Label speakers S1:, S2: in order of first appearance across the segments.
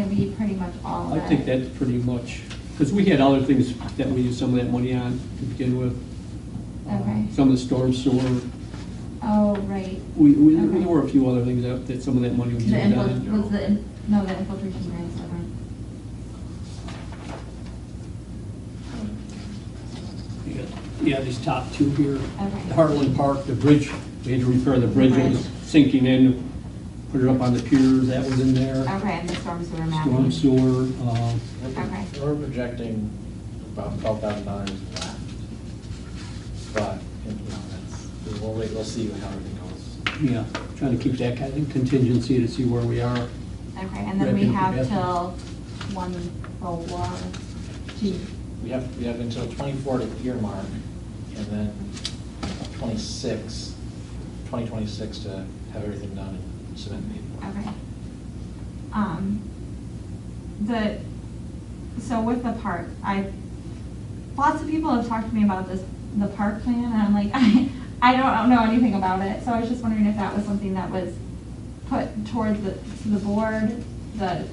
S1: much all
S2: I
S1: of it.
S2: think that's pretty much, because we had other things that we used some of that money on to begin with. Um,
S1: Okay.
S2: Some of the storm sewer,
S1: Oh, right.
S2: we, we, there
S1: Okay.
S2: were a few other things that, that some of that money was
S1: The
S2: used
S1: infil-
S2: on.
S1: was the, in- no, the infiltration grants, okay.
S2: Yeah, Yeah, these top two here,
S1: Okay.
S2: Heartland Park, the bridge, we had to repair the bridge, it was
S1: Bridge.
S2: sinking in, put it up on the pier, that was in there.
S1: Okay, and the storm sewer
S2: Storm
S1: mapping.
S2: sewer, uh,
S3: We're
S1: Okay.
S3: pro- We're projecting about twelve thousand dollars left. But, you know, that's, we'll wait, we'll see how everything goes.
S2: yeah, trying to keep that kind of contingency to see where we are.
S1: Okay, and then we
S2: Right,
S1: have
S2: yeah.
S1: till one oh four, gee,
S3: We have, we have until twenty-four to earmark, and then 26, 2026 to have everything done and submit the paperwork.
S1: okay. Um, the, so with the park, I, lots of people have talked to me about this, the park plan, and I'm like, I, I don't know anything about it, so I was just wondering if that was something that was put towards the, to the board, the,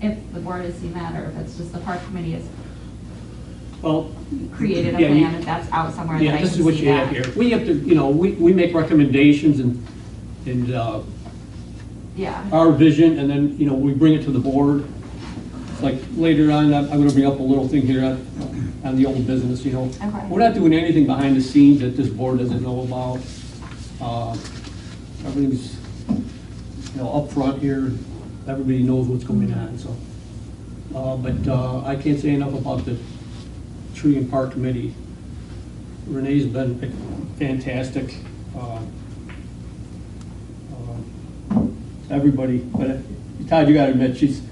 S1: if the board has seen that, or if it's just the park committee has
S2: Well.
S1: created a
S2: yeah, you-
S1: plan, if that's out somewhere that I
S2: Yeah,
S1: can
S2: this
S1: see
S2: is what you have
S1: that.
S2: here. We have to, you know, we, we make recommendations and, and uh,
S1: Yeah,
S2: our vision, and then, you know, we bring it to the board. Like later on, I'm I'm gonna bring up a little thing here on, on the old business, you know.
S1: Okay.
S2: We're not doing anything behind the scenes that this board doesn't know about. Uh, Everything's, you know, up front here, everybody knows what's going on, so. Uh, But uh, I can't say enough about the tree and park committee. Renee's been fantastic. Uh, uh, Everybody, but uh, Todd, you gotta admit, she's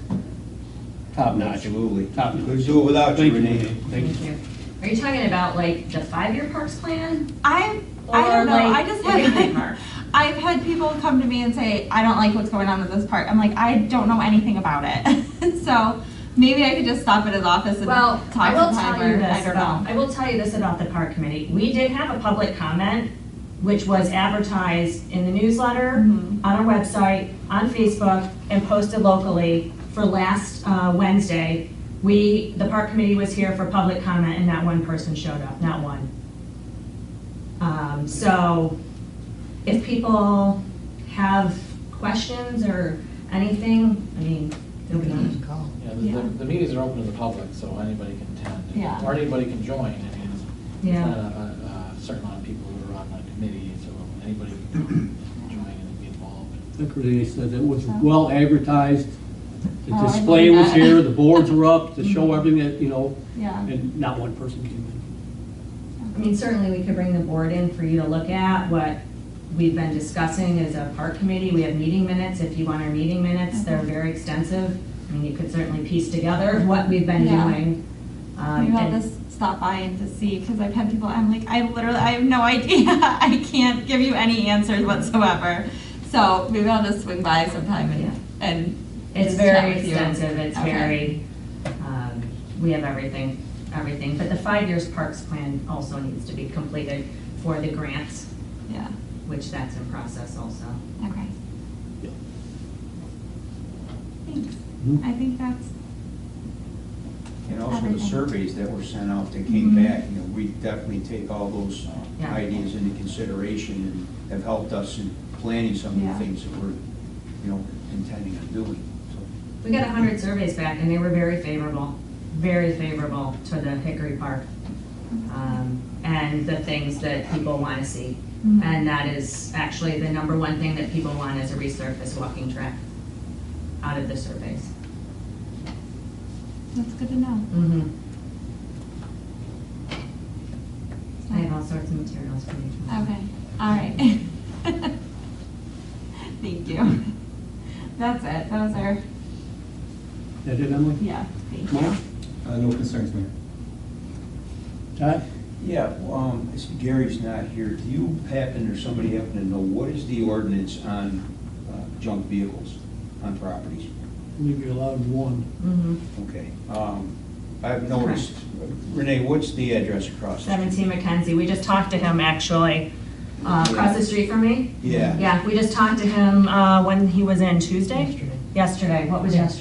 S2: top notch.
S4: Absolutely.
S2: Top notch.
S4: Couldn't do it without you,
S2: Thank
S4: Renee.
S2: Thank you.
S5: Are you talking about like the five-year parks plan?
S1: I, I don't
S5: Or,
S1: know,
S5: like,
S1: I just have,
S5: everything mark.
S1: I've had people come to me and say, I don't like what's going on with this park, I'm like, I don't know anything about it. So, maybe I could just stop at his office and
S5: Well,
S1: talk to
S5: I will
S1: him,
S5: tell
S1: or,
S5: you
S1: I
S5: this
S1: don't
S5: about,
S1: know.
S5: I will tell you this about the park committee. We did have a public comment, which was advertised in the newsletter,
S1: Mhm.
S5: on our website, on Facebook, and posted locally for last uh, Wednesday. We, the park committee was here for public comment and not one person showed up, not one. Um, So if people have questions or anything, I mean, they'll be on.
S3: Yeah, the-
S1: Yeah.
S3: the, the meetings are open to the public, so anybody can attend.
S1: Yeah.
S3: Or anybody can join, I mean, it's
S5: Yeah.
S3: not a, a a certain amount of people who are on the committee, so anybody can join and be involved.
S2: I think Renee said it was well advertised. The
S1: Oh, I
S2: display
S1: believe
S2: was
S1: that. Mm-hmm.
S2: here, the boards were up to show everything that, you know,
S1: Yeah,
S2: and not one person came in.
S5: I mean, certainly we could bring the board in for you to look at what we've been discussing as a park committee. We have meeting minutes, if you want our meeting minutes, they're very extensive. I mean, you could certainly piece together what we've been
S1: Yeah.
S5: doing. Um,
S1: maybe I'll
S5: and-
S1: just stop by and just see, cause I've had people, I'm like, I literally, I have no idea, I can't give you any answers whatsoever. So, maybe I'll just swing by sometime and, and.
S5: It's
S1: just chat
S5: very
S1: with you.
S5: extensive, it's
S1: Okay.
S5: very, um, we have everything, everything. But the five years parks plan also needs to be completed for the grants,
S1: Yeah,
S5: which that's in process also.
S1: okay.
S2: Yeah.
S1: Thanks.
S2: Mhm.
S1: I think that's,
S4: And also the
S1: Everything.
S4: surveys that were sent out that came
S1: Mhm.
S4: back, you know, we definitely take all those uh,
S5: Yeah.
S4: ideas into consideration and have helped us in planning some of
S1: Yeah.
S4: the things that we're, you know, intending on doing, so.
S5: We got 100 surveys back, and they were very favorable, very favorable to the Hickory Park um, and the things that people want to see.
S1: Mhm.
S5: And that is actually the number one thing that people want is a resurfaced walking track out of the surveys.
S1: that's good to know.
S5: Mhm. I have all sorts of materials for you. tomorrow.
S1: Okay, all right. Thank you. That's it, those are,
S2: That it, Emily?
S1: yeah, thank you.
S2: Mark?
S6: Uh, No concerns, Mayor.
S2: Todd?
S4: Yeah, well, um, I see Gary's not here. Do you happen, or somebody happen to know, what is the ordinance on uh, junk vehicles on properties?
S2: Leave you allowed one.
S5: Mhm.
S4: Okay, um, I've noticed, Renee, what's the address across the street?
S5: 17 McKenzie, we just talked to him actually, uh, across the street from me.
S4: Yeah.
S5: Yeah, we just talked to him uh, when he was in Tuesday? Yesterday. Yesterday, what was yesterday?